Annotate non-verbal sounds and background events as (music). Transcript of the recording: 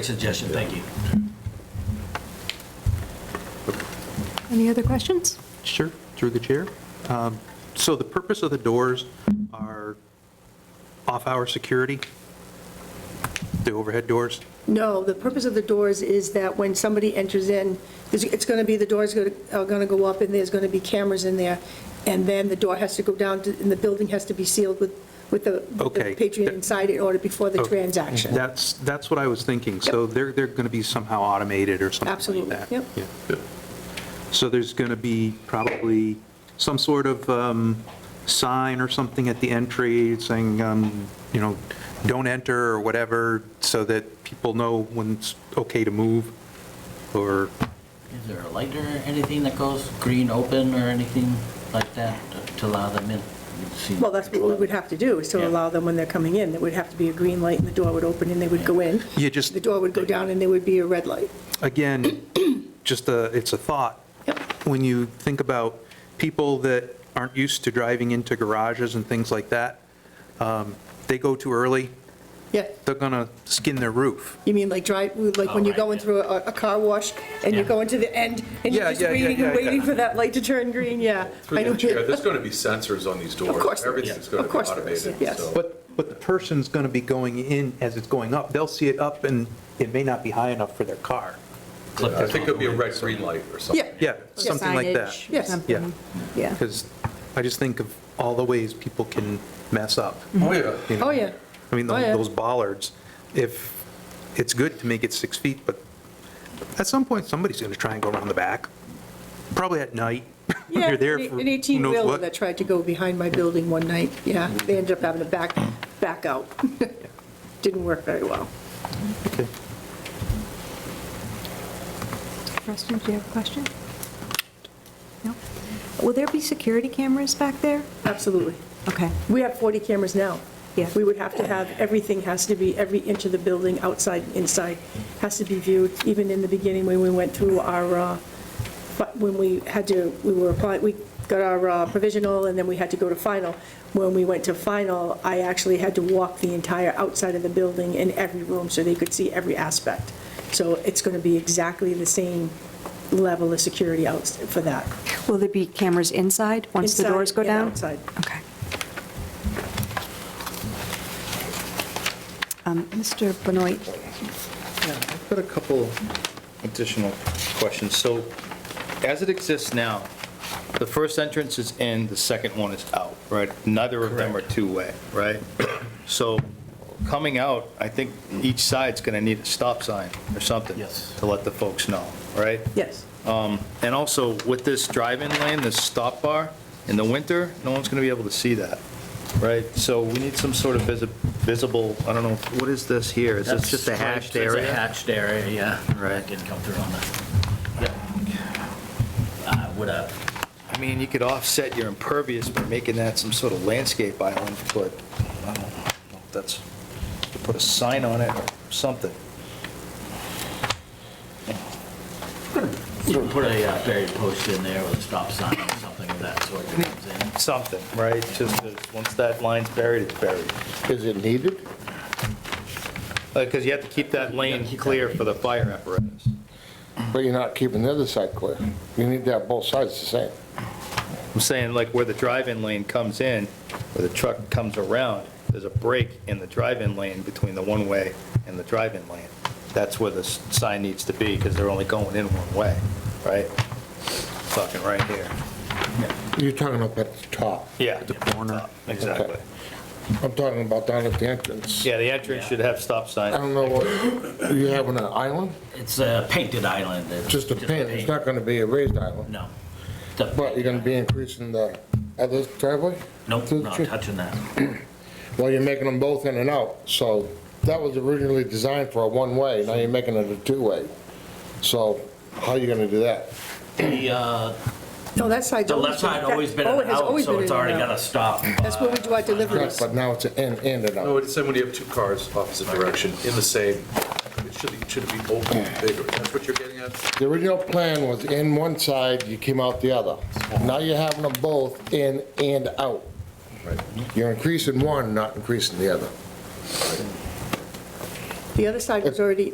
suggestion, thank you. Any other questions? Sure, through the chair. Um, So the purpose of the doors are off-hour security, the overhead doors? No, the purpose of the doors is that when somebody enters in, there's- it's going to be, the doors go- are going to go up, and there's going to be cameras in there, and then the door has to go down, to- and the building has to be sealed with, with the with the Okay. patron inside it order before the Okay. transaction. That's, that's what I was thinking. So they're, they're going to be somehow automated or something like Absolutely, that? yep. Yeah. So there's going to be probably some sort of um, sign or something at the entry saying, um, you know, don't enter or whatever, so that people know when it's okay to move, or, Is there a light or anything that goes green open or anything like that to allow them in? We've seen- Well, that's what we would have to do, is to Yeah. allow them when they're coming in. There would have to be a green light, and the door would open, and they would go in. You just- The door would go down, and there would be a red light. again, just a, it's a thought. Yep. When you think about people that aren't used to driving into garages and things like that, um, they go too early, Yeah, they're going to skin their roof. you mean like drive, like when Oh, you're right, going yeah. through a a car wash, and you're going to the end, and you're Yeah, just yeah, yeah, waiting and yeah, yeah. waiting for that light to turn green, yeah. I Through know the chair, there's going to be sensors on these doors. course there is. Everything's going to Of be course there is, automated. yes. so- But, but the person's going to be going in as it's going up. They'll see it up and it may not be high enough for their car. Clip uh, I it think on it'll be a the red, green light or something. (laughs) Yeah, Yeah. something like that. Signage or Yes. something. Yeah, Yeah. because I just think of all the ways people can mess up. Oh, yeah. you know? Oh, yeah. I mean, Oh, yeah. those bollards, if, it's good to make it six feet, but at some point, somebody's going to try and go around the back, probably at night. (laughs) when Yeah, You're an there for who an knows 18-wheeler what. that tried to go behind my building one night, yeah. They ended up having to back, back out. (laughs) Didn't work very well. Okay. Preston, do you have a question? No? Will there be security cameras back there? Absolutely. Okay, We have 40 cameras now. Yeah. We would have to have, everything has to be, every inch of the building, outside, inside, has to be viewed, even in the beginning when we went through our, uh, but when we had to, we were applying, we got our uh, provisional, and then we had to go to final. When we went to final, I actually had to walk the entire outside of the building in every room, so they could see every aspect. So it's going to be exactly the same level of security out for that. will there be cameras inside, once the Inside doors go and down? outside. Okay. Um, Mr. Benoit, Yeah, I've got a couple additional questions. So as it exists now, the first entrance is in, the second one is out, right? Neither of them are two-way, right? So coming out, I think each side's going to need a stop sign or something. Yes. To let the folks know, right? Um, Yes. And also with this drive-in lane, this stop bar, in the winter, no one's going to be able to see that, right? So we need some sort of visi- visible, I don't know, what is this here? Is That's this just a hashed stripes, area? It's a hatched area, yeah. Right. Didn't come through on that. Yep. I would uh, have, I mean, you could offset your impervious by making that some sort of landscape island, but I don't know, if that's, you put a sign on it or something. you could put a uh, buried post in there with a stop sign or something of that sort that comes in. Something, right? Just, that once that line's buried, it's buried. Is it needed? Because you have to keep that lane clear for the fire apparatus. But you're not keeping the other side clear. You need to have both sides the same. I'm saying, like, where the drive-in lane comes in, where the truck comes around, there's a break in the drive-in lane between the one-way and the drive-in lane. That's where the s- sign needs to be, because they're only going in one way, right? Fucking right here. You're talking up at the top. Yeah. The corner. Exactly. I'm talking about down at the entrance. Yeah, the entrance should have stop I sign. don't know, what you having an island? It's a painted island. It's Just a pin, it's paint. not gonna be a raised island. No. It's a But you're gonna be increasing the other driveway? Nope, not touching that. Well, you're making them both in and out, so that was originally designed for a one-way, now you're making it a two-way. So how are you gonna do that? The, uh, No, that side's the left always been... side always been an oh, it has out, always so been it's in and already out. got a stop. That's where we do our deliveries. But now it's an in, in and No, out. it's Oh, when you have two cars opposite direction in the same, it should, it should be open and bigger. That's what you're getting at? The original plan was in one side, you came out the other. Now you're having them both in and out. Right. You're increasing one, not increasing the other. The other side was already,